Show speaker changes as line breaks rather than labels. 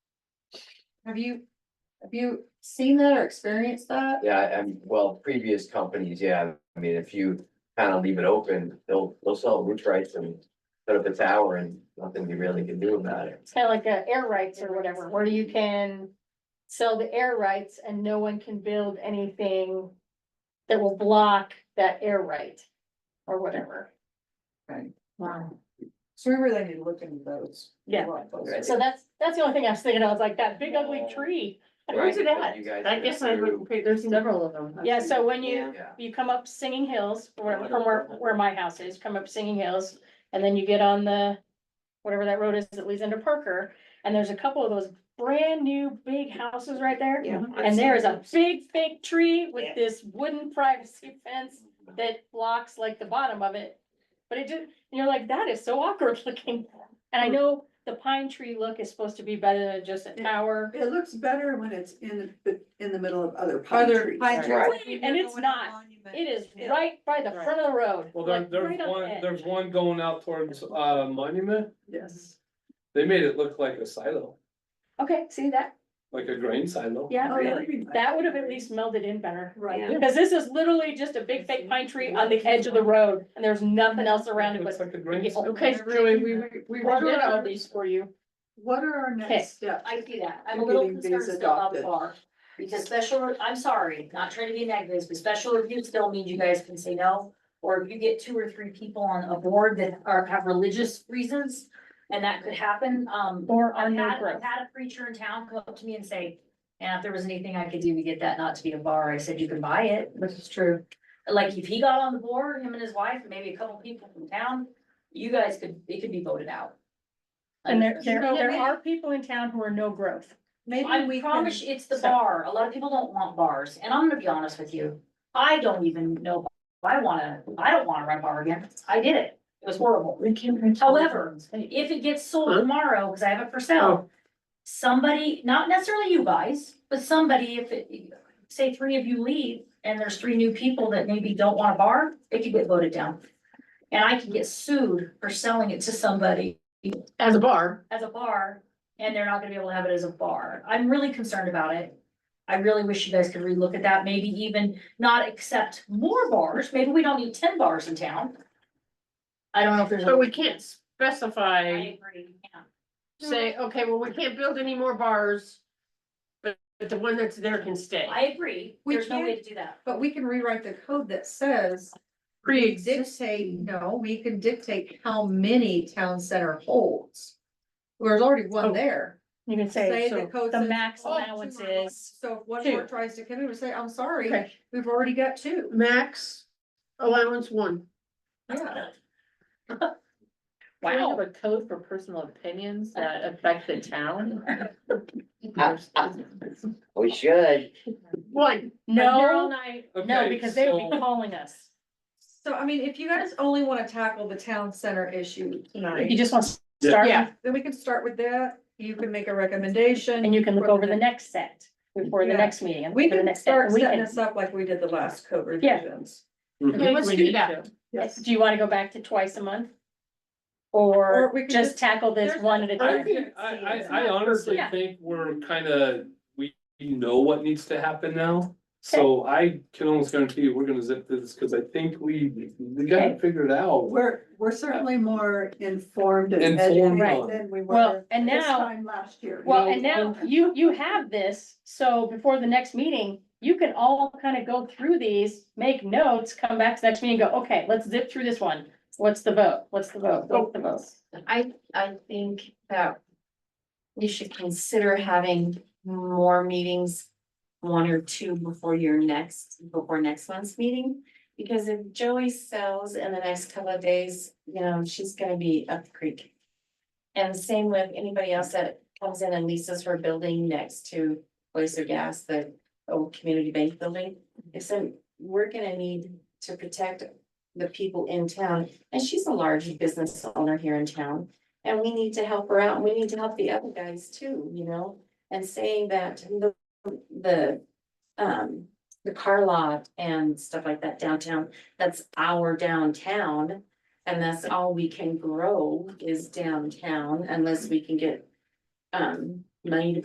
Have you, have you seen that or experienced that?
Yeah, I- I'm, well, previous companies, yeah, I mean, if you kind of leave it open, they'll, they'll sell roof rights and. Put up a tower and nothing you really can do about it.
It's kind of like uh, air rights or whatever, where you can sell the air rights and no one can build anything that will block that air right or whatever.
Wow. So we really need to look into those. A
Yeah.
lot closer.
So that's, that's the only thing I was thinking. I was like, that big ugly tree.
Oh. Right,
Where's it
but
at?
you guys
I
went
guess I
through-
would, pick- there's several of them.
Yeah, so when you,
Yeah, Oh,
you come up Singing Hills, from from where, where my house is, come up Singing Hills, and then you get on the, whatever that road is that leads into Parker, and there's a couple of those brand new big houses right there.
Yeah.
And there is a big fake tree
Yeah.
with this wooden privacy fence that blocks like the bottom of it. But it did, you're like, that is so awkward looking. And I know the pine tree look is supposed to be better than just a tower.
It looks better when it's in, the in the middle of other pine
Other
trees.
pine
Right.
trees.
And it's not. It is right by the front of the road.
Well, there,
like
there's
right on the
one,
edge.
there's one going out towards, uh, Monument,
Yes.
they made it look like a silo,
Okay, see that?
like a grain silo.
Yeah,
Oh,
Really?
that'd be nice.
that would have at least melded in better.
Right.
Because this is literally just a big fake pine tree on the edge of the road and there's nothing else around it
Looks
but.
like a grain silo.
Okay, Joey, we, we.
Well, I did all these for you.
What are our
Okay.
next steps?
I see that.
in
I'm a little
getting these
concerned still about the
adopted?
bar. Because special, I'm sorry, not trying to be negative, but special review still means you guys can say no. Or if you get two or three people on a board that are, have religious reasons, and that could happen, um.
Or
I've
on no
had,
growth.
I've had a preacher in town come up to me and say, and if there was anything I could do to get that not to be a bar, I said, you can buy it, which is true. Like, if he got on the board, him and his wife, and maybe a couple people from town, you guys could, it could be voted out.
And there, there,
So
there
maybe-
are people in town who are no growth.
Maybe
I
we
promise
can,
you, it's the
so-
bar. A lot of people don't want bars, and I'm gonna be honest with you. I don't even know if I wanna, I don't wanna run bar again. I did it. It was horrible.
We can.
However, If it gets sold tomorrow, cause I have it for
Oh.
sale, somebody, not necessarily you guys, but somebody, if it, say three of you leave and there's three new people that maybe don't want a bar, it could get voted down. And I could get sued for selling it to somebody
As a bar,
as a bar, and they're not gonna be able to have it as a bar. I'm really concerned about it. I really wish you guys could relook at that, maybe even not accept more bars, maybe we don't need ten bars in town. I don't know if there's. a-
but we can't
I
specify,
agree, yeah.
say, okay, well, we can't build any more bars. But, but the one that's there can stay.
I agree,
We
there's no way to do that.
but we can rewrite the code that says. we Dictate, no, we can dictate how many town center holds. There's already
Oh,
one there.
You can say,
Say
so
the code
the
says
max
all
allowance
two are-
is
So if one
two.
board tries to come in and say, I'm sorry,
Okay.
we've already got two.
Max allowance one.
Yeah.
Do we
Wow.
have a code for personal opinions that affect the town?
We should,
One.
no,
night.
no,
Okay,
because they would be
so-
calling us.
So I mean, if you guys only wanna tackle the town center issue
You
tonight,
just want to
Yeah.
start
Yeah.
then we can start with that. You can make a recommendation.
and you can look
for
over the next set before the
Yeah.
next meeting. and
We
look at the
can
next set,
start
and we
setting
can-
this up like we did the last code
Yeah.
revisions.
Okay, let's do that.
Do you want to go back to twice a month? Or
Or we can
just
just-
tackle this
there's
one at a
I
time?
think, I, I, I honestly
Yeah.
think we're kind of, we know what needs to happen now. So I can almost guarantee you, we're gonna zip this, cause I think we, we got it figured out.
We're, we're certainly more informed and
Informed.
educated than we
Well,
were
and
this
now-
time last year.
Well, and now you, you have this, so before the next meeting, you can all kind of go through these, make notes, come back to the next meeting, and go, okay, let's zip through this one. What's the vote? What's the vote? What's the vote?
I, I think that you should consider having more meetings, one or two before your next, before next month's meeting. Because if Joey sells in the next couple of days, you know, she's gonna be up the creek. And same with anybody else that comes in and leases her building next to Oyster Gas, the old community bank building. So we're gonna need to protect the people in town, and she's a large business owner here in town. And we need to help her out, and we need to help the other guys too, you know, and saying that the, the, um, the car lot and stuff like that downtown, that's our downtown. And that's all we can grow is downtown unless we can get, um, money to